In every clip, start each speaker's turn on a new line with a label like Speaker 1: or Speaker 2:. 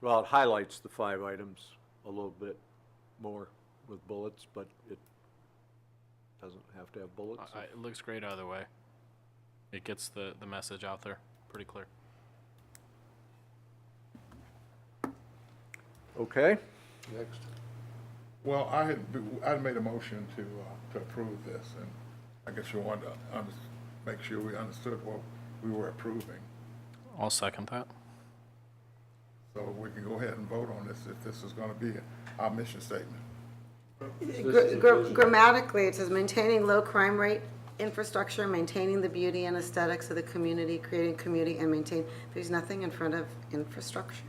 Speaker 1: Well, it highlights the five items a little bit more with bullets, but it doesn't have to have bullets.
Speaker 2: I- I- It looks great either way. It gets the, the message out there pretty clear.
Speaker 1: Okay,
Speaker 3: Next.
Speaker 4: Well, I had, I had made a motion to, uh, to approve this, and I guess we wanted to under- make sure we understood what we were approving.
Speaker 2: I'll second that.
Speaker 4: So we can go ahead and vote on this, if this is gonna be our mission statement.
Speaker 5: Gr- gr- Grammatically, it says maintaining low crime rate infrastructure, maintaining the beauty and aesthetics of the community, creating community and maintain, there's nothing in front of infrastructure.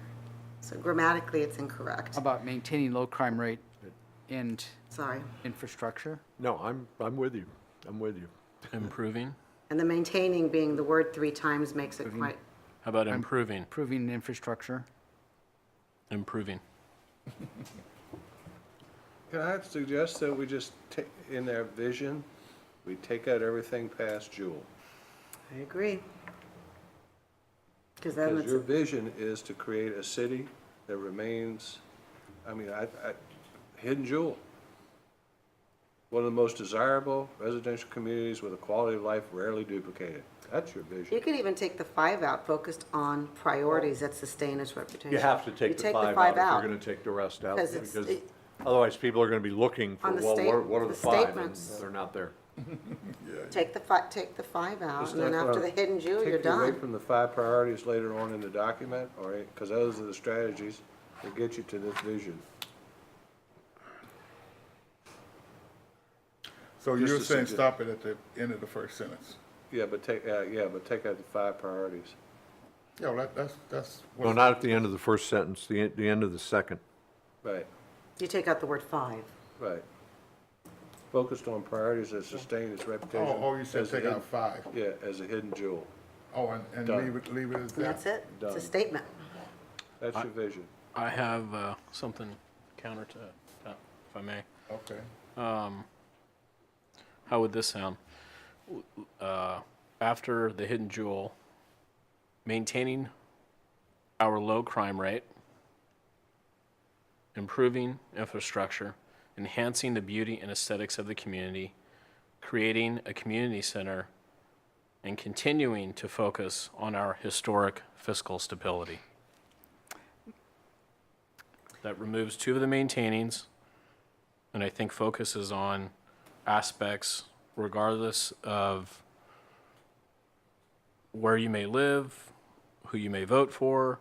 Speaker 5: So grammatically, it's incorrect.
Speaker 6: How about maintaining low crime rate and
Speaker 5: Sorry.
Speaker 6: infrastructure?
Speaker 1: no, I'm, I'm with you, I'm with you.
Speaker 2: Improving?
Speaker 5: And the maintaining being the word three times makes
Speaker 1: Mm-hmm.
Speaker 5: it quite,
Speaker 2: How about improving?
Speaker 6: Improving infrastructure?
Speaker 2: Improving.
Speaker 3: Can I suggest that we just take, in their vision, we take out everything past Jewel?
Speaker 5: I agree. Because then
Speaker 3: Because your
Speaker 5: it's,
Speaker 3: vision is to create a city that remains, I mean, I, I, hidden jewel. One of the most desirable residential communities with a quality of life rarely duplicated. That's your
Speaker 5: you
Speaker 3: vision.
Speaker 5: could even take the five out, focused on priorities that sustain its reputation.
Speaker 1: You have to
Speaker 5: You
Speaker 1: take the five out if you're gonna take the rest out,
Speaker 5: 'Cause it's-
Speaker 1: because
Speaker 5: it-
Speaker 1: otherwise people are gonna be looking for,
Speaker 5: On the
Speaker 1: well, what
Speaker 5: state-
Speaker 1: what are
Speaker 5: the
Speaker 1: the five? And
Speaker 5: statements.
Speaker 1: they're not there.
Speaker 5: Take the fi, take the five out,
Speaker 3: It's
Speaker 5: and then
Speaker 3: not
Speaker 5: after the
Speaker 3: gonna
Speaker 5: hidden jewel,
Speaker 3: Take
Speaker 5: you're
Speaker 3: you
Speaker 5: done.
Speaker 3: away from the five priorities later on in the document, or, because those are the strategies that get you to this vision.
Speaker 4: So
Speaker 3: Just
Speaker 4: you're
Speaker 3: to
Speaker 4: saying
Speaker 3: suggest-
Speaker 4: stop it at the end of the first sentence?
Speaker 3: Yeah, but take, uh, yeah, but take out the five priorities.
Speaker 4: Yeah, well, that, that's, that's. what-
Speaker 1: No, not at the end of the first sentence, the, en- the end of the second.
Speaker 3: Right,
Speaker 5: You take out the word five.
Speaker 3: right. Focused on priorities that sustain its reputation.
Speaker 4: Oh, oh, you said
Speaker 3: as a
Speaker 4: take
Speaker 3: hidden-
Speaker 4: out five.
Speaker 3: Yeah, as a hidden jewel.
Speaker 4: Oh, and, and
Speaker 3: Done.
Speaker 4: leave it, leave it as that.
Speaker 5: And that's it. It's
Speaker 3: Done.
Speaker 5: a statement.
Speaker 3: That's your vision.
Speaker 2: I have uh, something counter to that, if I may.
Speaker 4: Okay.
Speaker 2: How would this sound? W- Uh, after the hidden jewel, maintaining our low crime rate, improving infrastructure, enhancing the beauty and aesthetics of the community, creating a community center, and continuing to focus on our historic fiscal stability. That removes two of the maintainings and I think focuses on aspects regardless of where you may live, who you may vote for.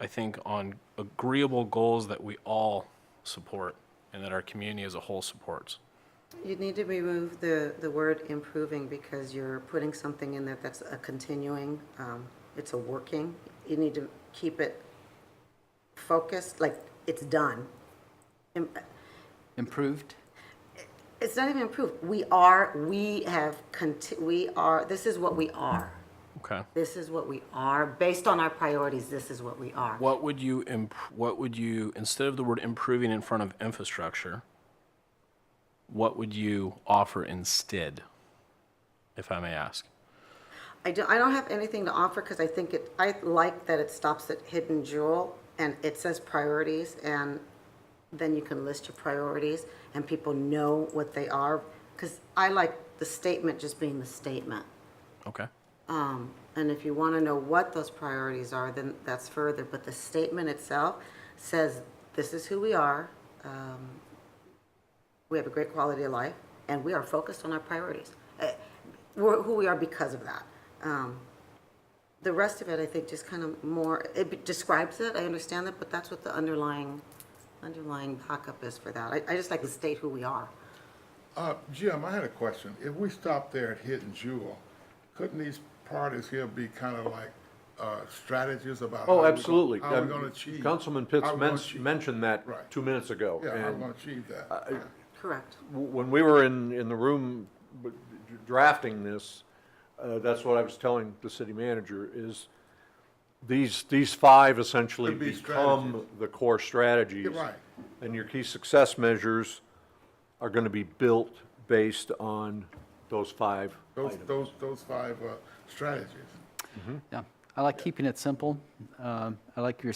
Speaker 2: I think on agreeable goals that we all support and that our community as a whole supports.
Speaker 5: You need to remove the, the word improving because you're putting something in there that's a continuing, um, it's a working. You need to keep it focused, like it's done. Im-
Speaker 6: Improved?
Speaker 5: It's not even improved. We are, we have, conti- we are, this is what we are.
Speaker 2: Okay.
Speaker 5: This is what we are. Based on our priorities, this is what we are.
Speaker 2: What would you imp- what would you instead of the word improving in front of infrastructure, what would you offer instead, if I may ask?
Speaker 5: I don't, I don't have anything to offer because I think it, I like that it stops at hidden jewel and it says priorities and then you can list your priorities and people know what they are. Because I like the statement just being the statement.
Speaker 2: Okay.
Speaker 5: Um, and if you want to know what those priorities are, then that's further. But the statement itself says, this is who we are. Um, we have a great quality of life and we are focused on our priorities. Uh, We're who we are because of that. Um, the rest of it, I think, just kind of more, it be- describes it, I understand that, but that's what the underlying, underlying backup is for that. I, I just like to state who we are.
Speaker 4: Uh, Jim, I had a question. If we stop there at Hidden Jewel, couldn't these parties here be kind of like, uh, strategies about? how we
Speaker 1: Oh,
Speaker 4: gon-
Speaker 1: absolutely.
Speaker 4: How we
Speaker 1: Um,
Speaker 4: gonna achieve?
Speaker 1: Councilman
Speaker 4: how
Speaker 1: Pitts
Speaker 4: we gonna
Speaker 1: men-
Speaker 4: achieve-
Speaker 1: mentioned
Speaker 4: Right.
Speaker 1: that two minutes ago.
Speaker 4: Yeah, how we
Speaker 1: and-
Speaker 4: gonna achieve that? Yeah.
Speaker 5: Correct.
Speaker 1: w- when we were in, in the room b- d- drafting this, uh, that's what I was telling the city manager, is these, these five essentially
Speaker 4: Could be
Speaker 1: become
Speaker 4: strategies.
Speaker 1: the core strategies.
Speaker 4: You're right.
Speaker 1: And your key success measures are gonna be built based on those five
Speaker 4: Those, those, those five, uh, strategies.
Speaker 6: Yeah. I like keeping it simple. Um, I like your